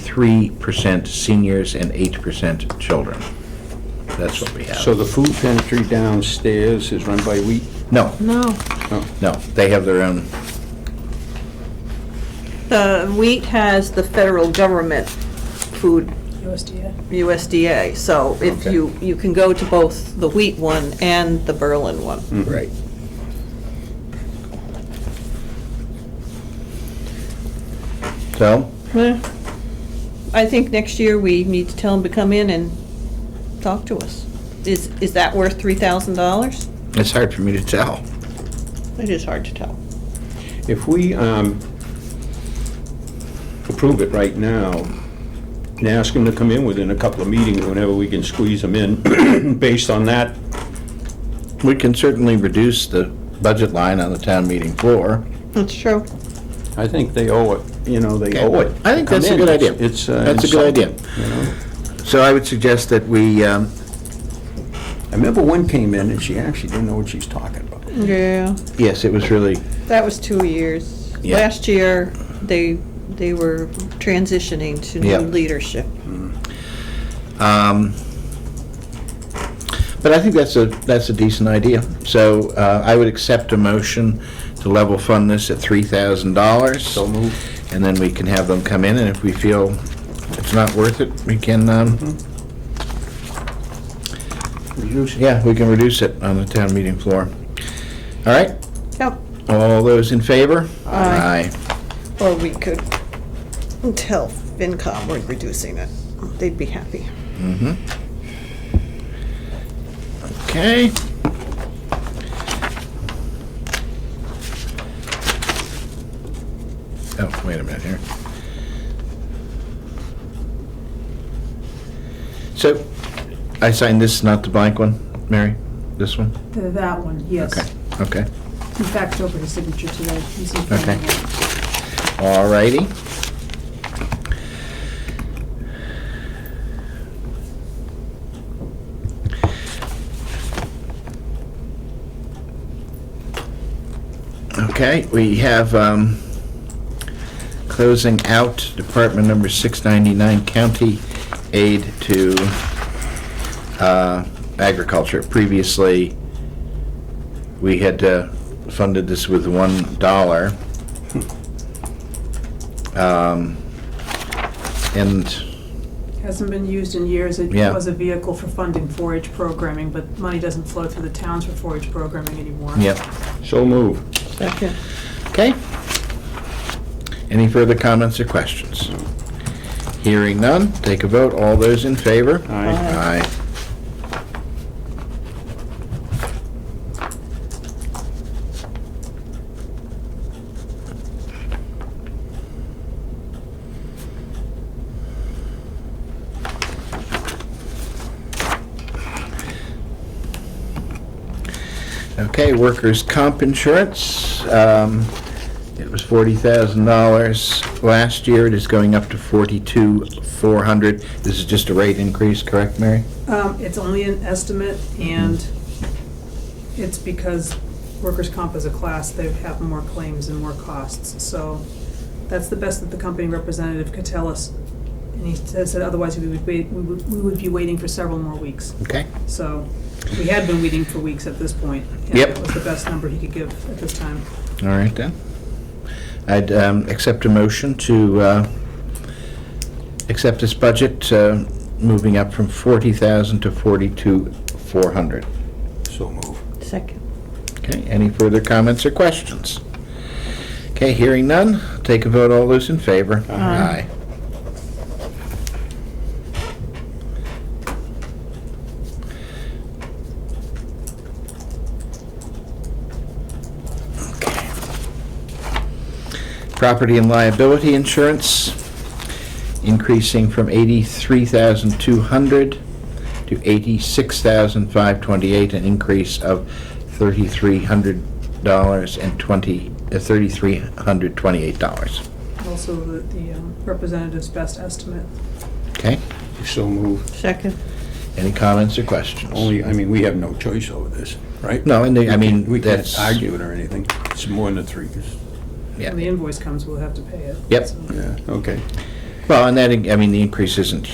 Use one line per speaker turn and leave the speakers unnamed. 3% seniors and 8% children. That's what we
So
have.
the food pantry downstairs is run by Wheat?
No,
No.
no, they have their own,
The wheat has the federal government food,
USDA.
USDA, so if
Okay.
you, you can go to both the wheat one and the Berlin one.
right. So,
Well, I think next year we need to tell them to come in and talk to us. Is, is that worth three thousand dollars?
it's hard for me to tell.
It is hard to tell.
If we um, approve it right now, and ask them to come in within a couple of meetings, whenever we can squeeze them in, based on that,
We can certainly reduce the budget line on the town meeting floor.
That's true.
I think they owe it, you know, they owe it.
I think
to come
that's a
in.
good idea.
It's, uh,
That's a good
insulting,
idea.
you know?
So I would suggest that we, um,
I remember one came in and she actually didn't know what she was talking about.
Yeah,
yes, it was really,
that was two years.
Yeah.
Last year, they, they were transitioning to
Yeah.
new leadership.
um, but I think that's a, that's a decent idea. So uh, I would accept a motion to level fund this at $3,000.
So moved.
And then we can have them come in, and if we feel it's not worth it, we can,
Mm-hmm.
um,
Reduce it.
yeah, we can reduce it on the town meeting floor. All right,
Yep.
all those in favor?
Aye. Or we could tell FinCom we're reducing it. They'd be happy.
Okay. Oh, wait a minute here. So, I signed this, not the blank one, Mary? This one?
Th- That one, yes.
Okay, okay,
In fact, over his signature today. He's in front
okay.
of me.
All righty. Okay, we have, um, closing out Department Number 699, County Aid to uh, Agriculture. Previously, we had uh, funded this with $1. Um, And,
Hasn't been used in years. It
Yeah.
was a vehicle for funding 4-H programming, but money doesn't flow through the towns for 4-H programming anymore.
yep,
So move.
Second.
okay. Any further comments or questions? Hearing none, take a vote, all those in favor? Aye.
Aye.
Okay, workers' comp insurance. um, It was $40,000 last year. It is going up to $42,400. This is just a rate increase, correct, Mary?
Um, It's only an estimate, and it's because workers' comp as a class, they have more claims and more costs. So that's the best that the company representative could tell us. And he says that otherwise we would wait, we would we would be waiting for several more weeks.
Okay.
So we had been waiting for weeks at this point. and
Yep.
That was the best number he could give at this time.
All right then. I'd um, accept a motion to uh, accept this budget, uh, moving up from 40,000 to 42,400.
So move.
Second.
Okay, any further comments or questions? Okay, hearing none, take a vote, all those in favor?
Aye.
Okay. Property and liability insurance, increasing from 83,200 to 86,528, an increase of $3,300 and 20, uh, $3,328.
Also, the the, um, representative's best estimate.
Okay?
So move.
Second.
Any comments or questions?
Only, I mean, we have no choice over this, right?
No, and they- I mean,
We can't
that's-
argue it or anything. It's more than the three, 'cause-
Yeah.
When the invoice comes, we'll have to pay it.
Yep.
So-
yeah, okay.
Well, and that, I mean, the increase isn't